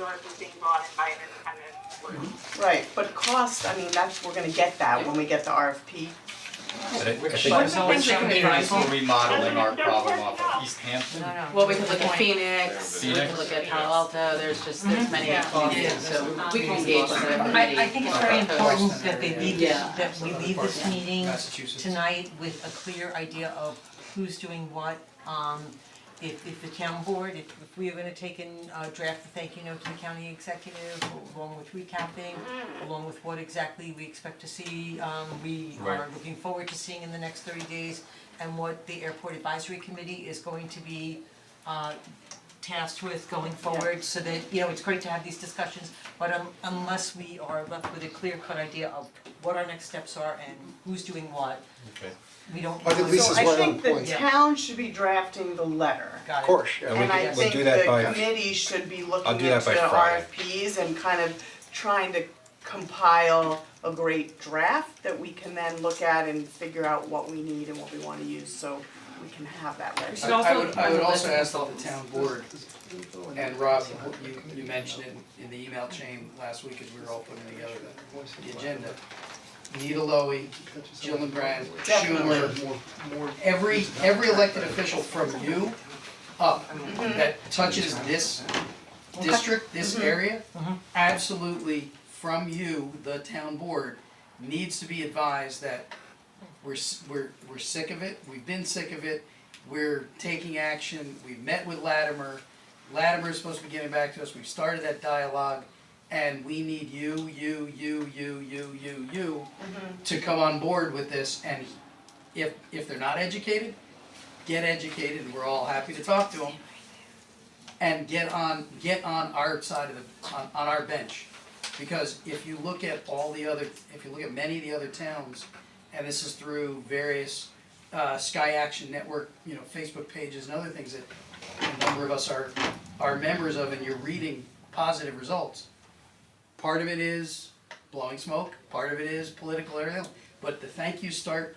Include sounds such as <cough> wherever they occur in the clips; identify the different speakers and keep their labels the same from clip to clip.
Speaker 1: dollars is being brought in by an independent group.
Speaker 2: Right, but cost, I mean, that's, we're gonna get that when we get the RFP.
Speaker 3: But I- I
Speaker 4: Which
Speaker 3: think-
Speaker 4: one of the things that could be
Speaker 5: communities
Speaker 4: fun-
Speaker 5: were remodeling our problem off of East Hampton.
Speaker 6: No, no.
Speaker 4: Well, we could look at
Speaker 6: Point.
Speaker 4: Phoenix, we could
Speaker 5: Phoenix.
Speaker 4: look at Palo Alto, there's just, there's many
Speaker 2: Yeah.
Speaker 4: communities, so we can engage with the committee.
Speaker 6: I I think it's very
Speaker 4: about those.
Speaker 6: important that they leave this,
Speaker 4: Yeah.
Speaker 6: that we leave this meeting
Speaker 5: Massachusetts.
Speaker 6: tonight with a clear idea of who's doing what. Um if if the town board, if if we are gonna take and uh draft the thank you note to the county executive, along with recapping, along with what exactly we expect to see, um we are
Speaker 3: Right.
Speaker 6: looking forward to seeing in the next thirty days and what the airport advisory committee is going to be uh tasked with going forward so that, you know, it's great to have these discussions, but um unless we are left with a clear cut idea of what our next steps are and who's doing what,
Speaker 3: Okay.
Speaker 6: we don't.
Speaker 7: But at least
Speaker 2: So
Speaker 7: Lisa's
Speaker 2: I
Speaker 7: right
Speaker 2: think
Speaker 7: on
Speaker 2: the
Speaker 7: point.
Speaker 2: town should be drafting the letter.
Speaker 6: Got
Speaker 7: Of
Speaker 6: it.
Speaker 7: course, yeah.
Speaker 3: And we
Speaker 2: And I
Speaker 3: can, we'll
Speaker 2: think
Speaker 3: do that
Speaker 2: the
Speaker 3: by,
Speaker 2: committee should be
Speaker 3: I'll
Speaker 2: looking
Speaker 3: do that
Speaker 2: into
Speaker 3: by
Speaker 2: the
Speaker 3: Friday.
Speaker 2: RFPs and kind of trying to compile a great draft that we can then look at and figure out what we need and what we wanna use, so we can have that letter.
Speaker 5: I I would I would also ask that the town board, and Rob, you you mentioned it in the email chain last week as we were all putting together the the agenda. Nita Lowey, Jillian Brand, Schumer, every every elected official from you up that touches this district, this area, absolutely from you, the town board, needs to be advised that we're, s- we're, we're sick of it, we've been sick of it, we're taking action, we've met with Latimer. Latimer's supposed to be getting back to us, we've started that dialogue, and we need you, you, you, you, you, you, you to come on board with this, and if, if they're not educated, get educated, and we're all happy to talk to them. And get on, get on our side of the, on, on our bench, because if you look at all the other, if you look at many of the other towns, and this is through various uh, Sky Action Network, you know, Facebook pages and other things that a number of us are, are members of, and you're reading positive results. Part of it is blowing smoke, part of it is political, everything, else. but the thank yous start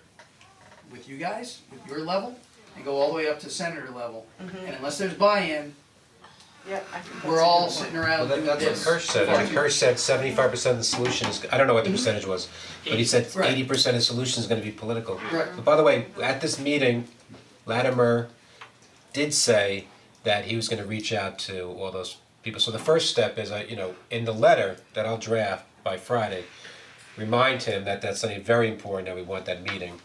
Speaker 5: with you guys, with your level, and go all the way up to senator level. And unless there's buy-in,
Speaker 2: Yeah, I think that's a
Speaker 5: we're all
Speaker 2: good one.
Speaker 5: sitting
Speaker 3: well,
Speaker 5: around
Speaker 3: that-
Speaker 5: doing
Speaker 3: that's what
Speaker 5: this.
Speaker 3: Kirsch said, I mean, Kirsch said seventy-five percent of the solution is, I don't know what the percentage was, but he said
Speaker 5: Right.
Speaker 3: eighty percent of the solution is gonna be political.
Speaker 5: Right.
Speaker 3: But by the way, at this meeting, Latimer did say that he was gonna reach out to all those people. So the first step is, I, you know, in the letter that I'll draft by Friday, remind him that that's something very important, that we want that meeting.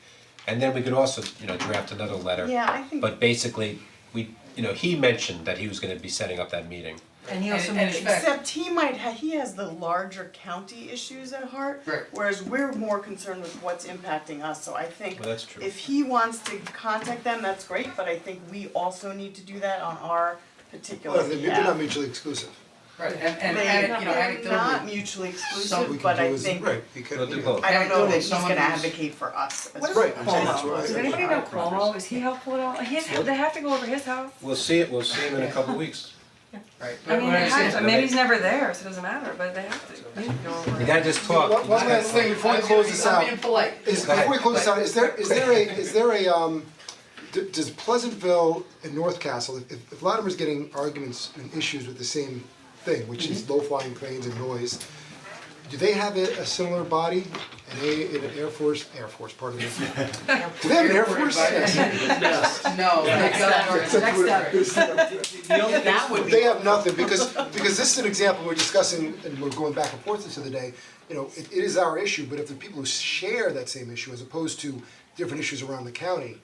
Speaker 3: And then we could also, you know, draft another letter.
Speaker 2: Yeah, I think-
Speaker 3: But basically, we, you know, he mentioned that he was gonna be setting up that meeting.
Speaker 6: And he
Speaker 5: And-
Speaker 6: also
Speaker 5: and
Speaker 6: mentioned.
Speaker 5: in fact-
Speaker 2: Except he might ha- he has the larger county issues at heart.
Speaker 5: Right.
Speaker 2: Whereas we're more concerned with what's impacting us, so I think
Speaker 3: Well, that's true.
Speaker 2: if he wants to contact them, that's great, but I think we also need to do that on our particular
Speaker 7: Well, they're they're not
Speaker 2: behalf.
Speaker 7: mutually exclusive.
Speaker 5: Right, and, and, and, you know,
Speaker 2: They're not
Speaker 5: anecdotally,
Speaker 2: mutually exclusive,
Speaker 5: some we
Speaker 7: can
Speaker 2: but
Speaker 7: do
Speaker 2: I
Speaker 7: is-
Speaker 2: think,
Speaker 7: Right, we could,
Speaker 3: They'll do
Speaker 7: you
Speaker 3: both.
Speaker 2: I don't know
Speaker 5: Anecdotally,
Speaker 2: that he's
Speaker 5: someone
Speaker 2: gonna
Speaker 5: who's-
Speaker 2: advocate for us as well.
Speaker 7: Right, I'm saying that's
Speaker 2: Cuomo?
Speaker 7: right.
Speaker 2: Does
Speaker 7: anybody
Speaker 8: know Cuomo, is he helpful at all? His, they have to go over his house.
Speaker 3: We'll see it, we'll see him in a couple weeks.
Speaker 5: right,
Speaker 8: I
Speaker 5: but
Speaker 8: mean,
Speaker 5: when I
Speaker 8: they
Speaker 5: say.
Speaker 8: have to, maybe he's never there, so it doesn't matter, but they have to go over.
Speaker 3: We gotta just talk.
Speaker 7: One- one last thing before we close this out.
Speaker 5: I'm being polite.
Speaker 7: Is,
Speaker 3: Go ahead.
Speaker 7: before we close this out, is there, is there a, is there a, um, d- does Pleasantville and North Castle, if, if Latimer's getting arguments and issues with the same thing, which is
Speaker 3: Mm-hmm.
Speaker 7: low-flying planes and noise, do they have a, a similar body, an A, an Air Force, Air Force, <laughs> pardon me? Do they have an Air Force?
Speaker 5: No, thank God,
Speaker 7: Yes. Next
Speaker 5: that would be.
Speaker 7: They have nothing, because, because this is an example, we're discussing, and we're going back and forth this other day, you know, it, it is our issue, but if the people who share that same issue, as opposed to different issues around the county,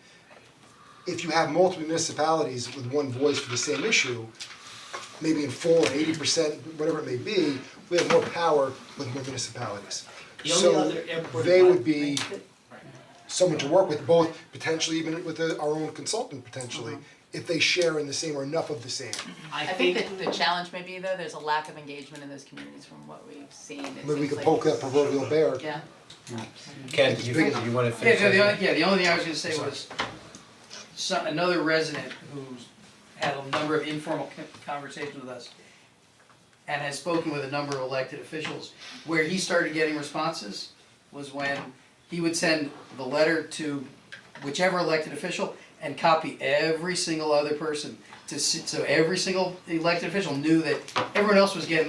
Speaker 7: if you have multiple municipalities with one voice for the same issue, maybe in full, eighty percent, whatever it may be, we have more power with more municipalities. So, they would be someone to work with, both potentially even with the- our own consultant potentially, if they share in the same or enough of the same.
Speaker 4: I think that the challenge may be though, there's a lack of engagement in those communities from what we've seen, it
Speaker 7: Maybe we
Speaker 4: seems
Speaker 7: could
Speaker 4: like-
Speaker 7: poke that proverbial bear.
Speaker 4: Yeah.
Speaker 3: Ken, you, you wanna
Speaker 5: Yeah,
Speaker 3: finish?
Speaker 5: no,
Speaker 3: that?
Speaker 5: the only, yeah, the only thing I was gonna say was, some, another resident who's had a number of informal co- conversations with us and has spoken with a number of elected officials, where he started getting responses was when he would send the letter to whichever elected official and copy every single other person to, s- so every single elected official knew that everyone else was getting